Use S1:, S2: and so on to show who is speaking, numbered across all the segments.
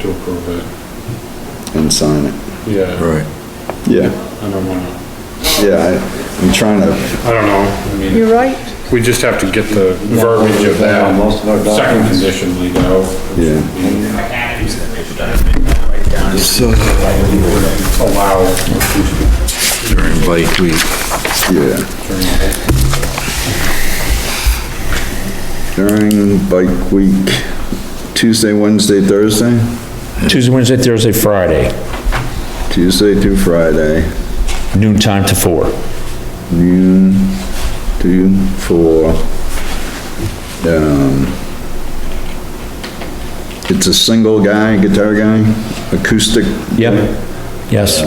S1: to approve it.
S2: and sign it.
S1: Yeah,
S3: Right.
S2: Yeah,
S1: I don't wanna,
S2: yeah, I- I'm trying to,
S1: I don't know, I mean,
S4: You're right.
S1: we just have to get the verbiage of that
S5: Most of our documents.
S1: second condition lead out.
S2: Yeah.
S3: So,
S1: uh, Allow
S3: during bike week,
S2: yeah. During bike week, Tuesday, Wednesday, Thursday?
S6: Tuesday, Wednesday, Thursday, Friday,
S2: Tuesday through Friday,
S6: noon time to four.
S2: noon to four. Um, it's a single guy, guitar guy, acoustic,
S6: Yep, Uh, yes,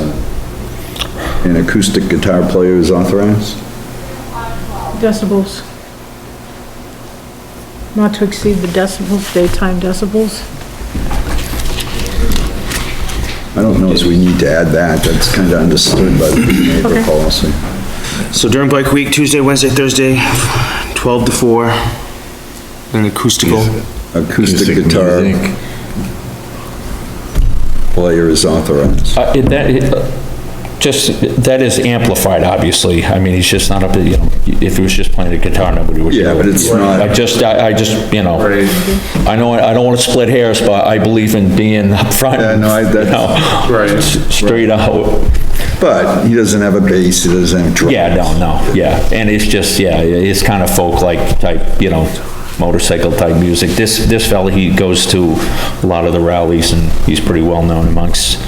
S2: and acoustic guitar player is authorized.
S4: Decibels. Not to exceed the decibels, daytime decibels.
S2: I don't know if we need to add that, that's kind of understood by the neighbor
S4: Okay.
S2: policy.
S7: So during bike week, Tuesday, Wednesday, Thursday, 12 to 4, an acoustical.
S2: Acoustic
S3: acoustic
S2: guitar
S3: music.
S2: player is authorized.
S6: uh, it- that, it, uh, just, that is amplified, obviously, I mean, he's just not up, to, you know, if he was just playing the guitar, nobody would.
S2: Yeah,
S6: know.
S2: but it's not-
S6: I just, I, I just, you know, I know, I don't wanna split hairs, but I believe in being upfront.
S2: Yeah, no, I-
S6: you
S2: that's-
S6: know,
S1: Right.
S6: s- Straight out,
S2: But he doesn't have a bass, he doesn't have drums.
S6: yeah, no, no, yeah, and it's just, yeah, it's kind of folk-like type, you know, motorcycle-type music. This, this fella, he goes to a lot of the rallies, and he's pretty well-known amongst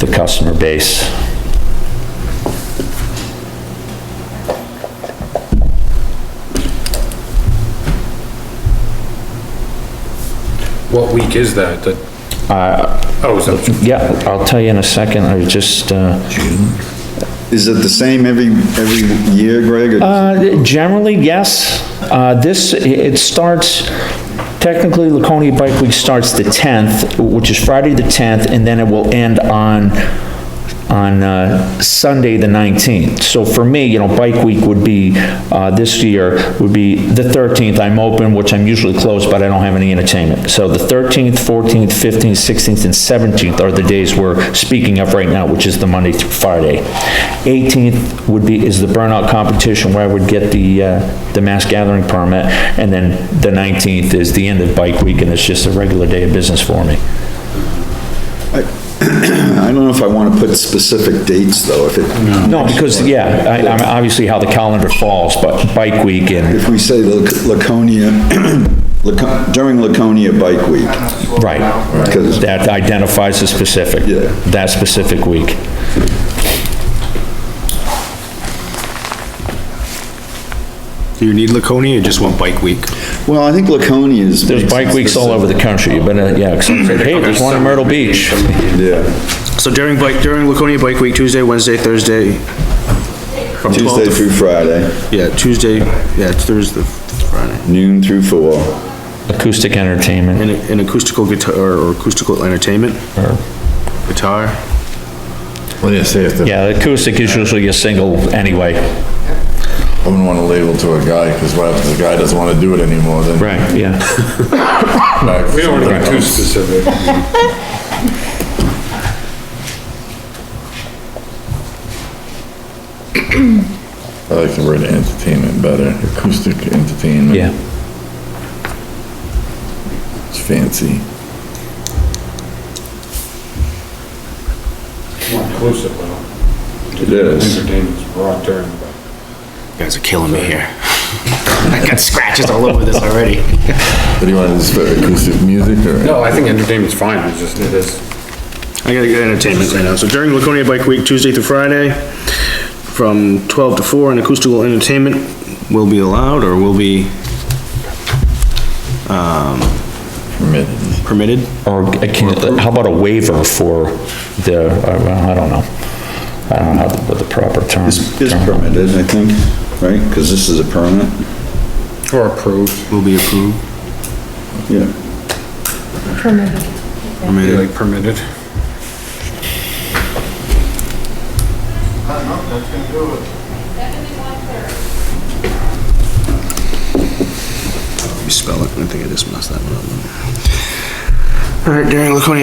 S6: the customer base.
S1: What week is that? That, oh, is that
S6: Yeah, I'll tell you in a second, I was just, uh,
S2: Is it the same every, every year, Greg? or-
S6: Uh, Generally, yes. Uh, This, it starts, technically Laconia Bike Week starts the 10th, which is Friday the 10th, and then it will end on, on uh, Sunday the 19th. So for me, you know, Bike Week would be, uh, this year, would be the 13th. I'm open, which I'm usually closed, but I don't have any entertainment. So the 13th, 14th, 15th, 16th, and 17th are the days we're speaking of right now, which is the Monday through Friday. 18th would be, is the burnout competition where I would get the, uh, the mass gathering permit, and then the 19th is the end of Bike Week, and it's just a regular day of business for me.
S2: I don't know if I want to put specific dates, though, if it,
S6: No, because, yeah, I, I'm obviously how the calendar falls, but Bike Week and,
S2: if we say Lac- Laconia, Laco- during Laconia Bike Week,
S6: right,
S2: because,
S6: that identifies the specific,
S2: Yeah.
S6: that specific week.
S7: Do you need Laconia or just want bike week?
S2: well, I think Laconia is.
S6: There's bike weeks all over the country, you've been, uh, yeah, except for- hey, there's one in Myrtle Beach.
S2: Yeah,
S7: So during bike, during Laconia Bike Week, Tuesday, Wednesday, Thursday. from 12 to-
S2: Tuesday through Friday,
S7: Yeah, Tuesday, yeah, it's Thursday, Friday.
S2: noon through four.
S6: Acoustic entertainment,
S7: And an acoustical guitar, or acoustical entertainment,
S6: or,
S7: guitar.
S3: well, yeah, say if the,
S6: yeah, acoustic is usually a single anyway.
S3: I wouldn't want to label to a guy, because what if the guy doesn't want to do it anymore, then.
S6: Yeah.
S3: Right.
S1: We don't want to be too specific.
S3: I like the word entertainment better, acoustic entertainment.
S6: Yeah.
S3: It's fancy.
S1: More inclusive, though.
S2: It is.
S1: Entertainment's broad term, but.
S7: You guys are killing me here. I got scratches all over this already.
S3: What do you want, is it acoustic music or?
S1: No, I think entertainment's fine, it's just, it is.
S7: I gotta get entertainment right now. So during Laconia Bike Week, Tuesday through Friday, from 12 to 4, an acoustical entertainment will be allowed or will be
S3: Permitted.
S7: permitted.
S6: Or a can, uh, how about a waiver for the, uh, well, I don't know. I don't know how the- what the proper term.
S2: Is permitted, I think, right? Because this is a permit.
S1: Or approved.
S7: Will be approved.
S2: Yeah,
S1: Be like permitted.
S7: You spell it, I think I just messed that one up. All right, during Laconia